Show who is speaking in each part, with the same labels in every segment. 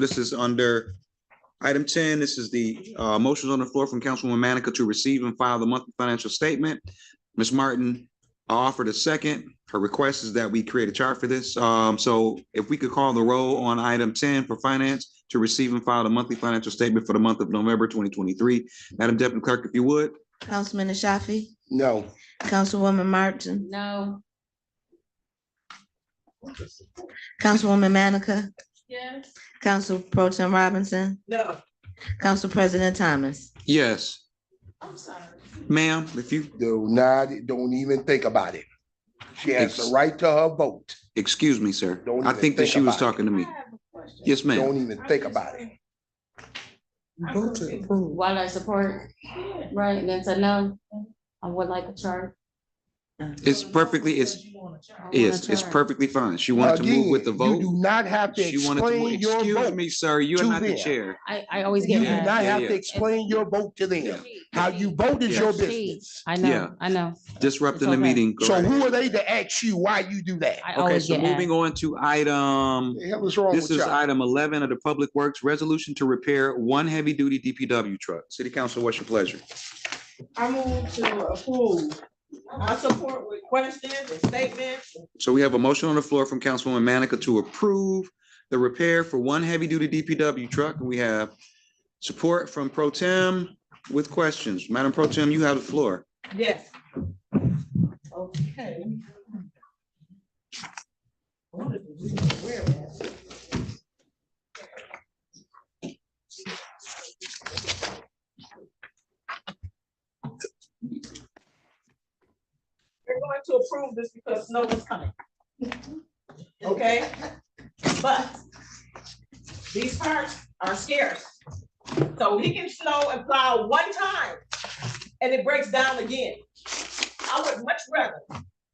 Speaker 1: This is under item ten. This is the uh motions on the floor from Councilwoman Manica to receive and file the monthly financial statement. Ms. Martin offered a second. Her request is that we create a chart for this. Um, so if we could call the roll on item ten for finance to receive and file the monthly financial statement for the month of November twenty twenty-three. Madam Deputy Clerk, if you would.
Speaker 2: Councilman Ashafi,
Speaker 3: No.
Speaker 2: Councilwoman Martin,
Speaker 4: No.
Speaker 2: Councilwoman Manica,
Speaker 4: Yes.
Speaker 2: Council Pro Tem Robinson,
Speaker 4: No.
Speaker 2: Council President Thomas.
Speaker 1: Yes,
Speaker 4: I'm sorry.
Speaker 1: ma'am, if you,
Speaker 3: Do not, don't even think about it. She has
Speaker 1: Ex-
Speaker 3: the right to her vote.
Speaker 1: excuse me, sir.
Speaker 3: Don't
Speaker 1: I
Speaker 3: even
Speaker 1: think that
Speaker 3: think
Speaker 1: she was
Speaker 3: about it.
Speaker 1: talking to
Speaker 4: I
Speaker 1: me.
Speaker 4: have a question.
Speaker 1: Yes, ma'am.
Speaker 3: Don't even think about it.
Speaker 4: Vote to approve. While I support, right, and then said no, I would like a chart.
Speaker 1: It's perfectly, it's,
Speaker 4: I want a
Speaker 1: Yes, it's
Speaker 4: chart.
Speaker 1: perfectly fine. She wanted to move with the
Speaker 3: Again, You
Speaker 1: vote.
Speaker 3: do not have to
Speaker 1: She wanted to, move.
Speaker 3: explain your
Speaker 1: excuse
Speaker 3: vote.
Speaker 1: me, sir, you are
Speaker 3: to
Speaker 1: not the
Speaker 3: them.
Speaker 1: chair.
Speaker 4: I, I always
Speaker 3: You
Speaker 4: get
Speaker 3: do
Speaker 4: mad.
Speaker 3: not have
Speaker 1: yeah.
Speaker 3: to explain your vote to them. How you vote is your
Speaker 4: Yeah.
Speaker 3: business.
Speaker 4: I
Speaker 1: Yeah.
Speaker 4: know, I know.
Speaker 1: Disrupting the
Speaker 4: okay.
Speaker 1: meeting. go
Speaker 3: So
Speaker 1: ahead.
Speaker 3: who are they to ask you why you do that?
Speaker 4: I
Speaker 1: Okay,
Speaker 4: always
Speaker 1: so
Speaker 4: get
Speaker 1: moving
Speaker 4: mad.
Speaker 1: on to item,
Speaker 3: The hell is wrong
Speaker 1: this
Speaker 3: with
Speaker 1: is
Speaker 3: y'all?
Speaker 1: item eleven of the Public Works Resolution to repair one heavy-duty DPW truck. City Council, what's your pleasure?
Speaker 5: I move to approve. I support with questions and statements.
Speaker 1: So we have a motion on the floor from Councilwoman Manica to approve the repair for one heavy-duty DPW truck. We have support from Pro Tem with questions. Madam Pro Tem, you have the floor.
Speaker 5: Yes. Okay. We're going to approve this because snow is coming. Okay? But these parts are scarce. So he can snow and plow one time and it breaks down again. I would much rather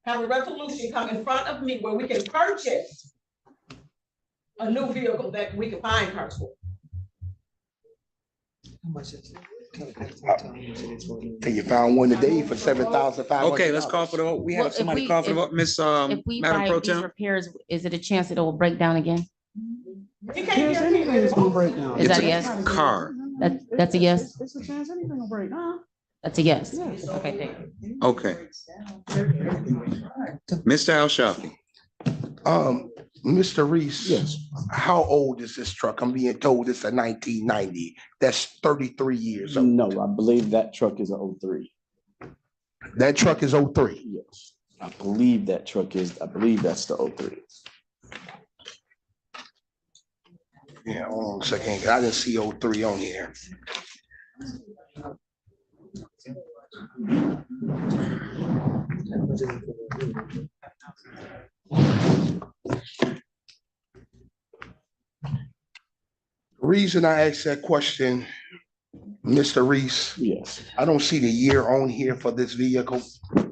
Speaker 5: have a resolution come in front of me where we can purchase a new vehicle that we can find parts for.
Speaker 3: Hey, You found one today for seven thousand five hundred.
Speaker 1: Okay, let's call for the, vote. we
Speaker 4: Well,
Speaker 1: have
Speaker 4: if
Speaker 1: somebody
Speaker 4: we-
Speaker 1: call for the,
Speaker 4: if-
Speaker 1: vote. Miss, um,
Speaker 4: If we
Speaker 1: Madam
Speaker 4: buy
Speaker 1: Pro
Speaker 4: these
Speaker 1: Tem.
Speaker 4: repairs, is it a chance that it will break down again?
Speaker 5: You can't guarantee it.
Speaker 4: Is that
Speaker 1: It's
Speaker 4: a yes?
Speaker 1: Car.
Speaker 4: That, that's a yes?
Speaker 6: It's a chance, anything will break, huh?
Speaker 4: That's a yes?
Speaker 6: Yes.
Speaker 4: Okay, thank you.
Speaker 1: Okay. Mr. Al Shafi.
Speaker 3: Um, Mr. Reese. How old is this truck? I'm being told it's a nineteen ninety. That's thirty-three years old.
Speaker 7: No, I believe that truck is a O three.
Speaker 1: Mm.
Speaker 3: That truck is 03.
Speaker 7: Yes. I believe that truck is, I believe that's the O three.
Speaker 3: Yeah, hold on a second. 'cause I didn't see 03 on here. Reason I asked that question, Mr. Reese,
Speaker 7: Yes.
Speaker 3: I don't see the year on here for this vehicle. I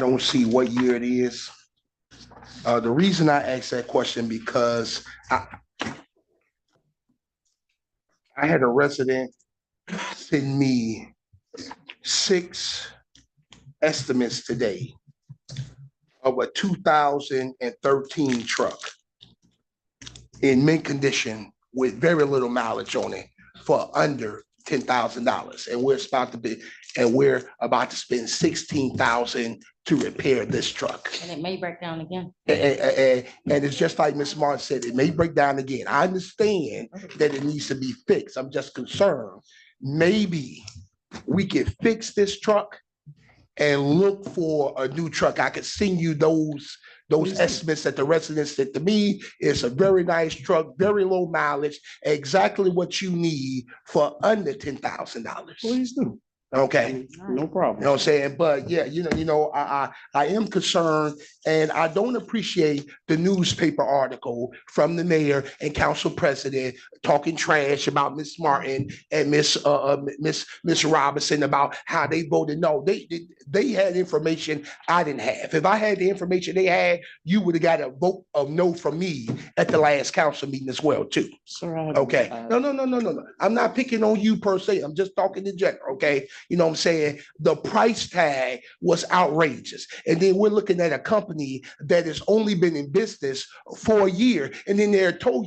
Speaker 3: don't see what year it is. Uh, the reason I asked that question because I I had a resident send me six estimates today of a two thousand and thirteen truck in mint condition with very little mileage on it for under ten thousand dollars. And we're about to be, and we're about to spend sixteen thousand to repair this truck.
Speaker 4: And it may break down again.
Speaker 3: And, and it's just like Ms. Martin said, it may break down again. I understand that it needs to be fixed. I'm just concerned. Maybe we could fix this truck and look for a new truck. I could send you those, those estimates that the residents said to me. It's a very nice truck, very low mileage, exactly what you need for under ten thousand dollars.
Speaker 7: Please do.
Speaker 3: Okay?
Speaker 7: No
Speaker 3: You
Speaker 7: problem.
Speaker 3: know what I'm saying? But yeah, you know, you know, I, I, I am concerned and I don't appreciate the newspaper article from the mayor and council president talking trash about Miss Martin and Miss, uh, uh, Miss, Miss Robinson about how they voted. No, they, they, they had information I didn't have. If I had the information they had, you would have got a vote of no from me at the last council meeting as well, too.
Speaker 7: Sir, I-
Speaker 3: Okay,
Speaker 7: Uh,
Speaker 3: no, no, no, no, no, no. I'm not picking on you per se. I'm just talking in general, okay? You know what I'm saying? The price tag was outrageous. And then we're looking at a company that has only been in business for a year, and then they're told